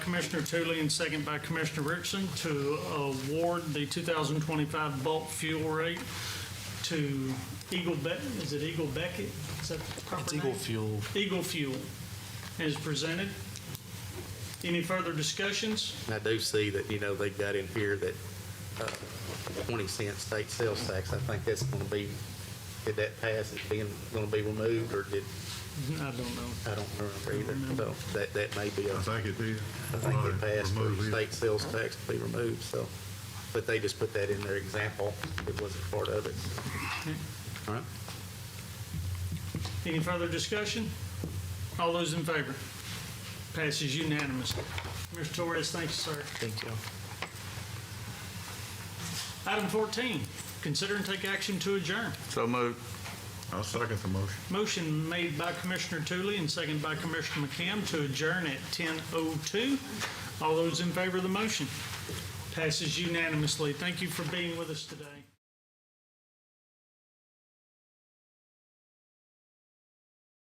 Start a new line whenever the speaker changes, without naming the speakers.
Commissioner Tootley and second by Commissioner Richardson to award the 2025 bulk fuel rate to Eagle Beck, is it Eagle Beckett? Is that the proper
It's
name?
Eagle Fuel.
Eagle Fuel is presented. Any further discussions?
And I do see that, you know, they've got in here that uh, 20 cent state sales tax, I think that's going to be, did that pass, it's being, going to be removed, or did,
I don't know.
I don't remember either, so that, that may be, a-
I
I
think it did.
think it passed for
Remove it.
state sales tax to be removed, so, but they just put that in their example, it wasn't part of it. All right,
Any further discussion? All those in favor? Passes unanimously. Mr. Torres, thank you, sir.
Thank you.
Item 14, consider and take action to adjourn.
So moved.
I'll second the motion.
Motion made by Commissioner Tooley and seconded by Commissioner McKim to adjourn at 10:02. All those in favor of the motion? Passes unanimously. Thank you for being with us today.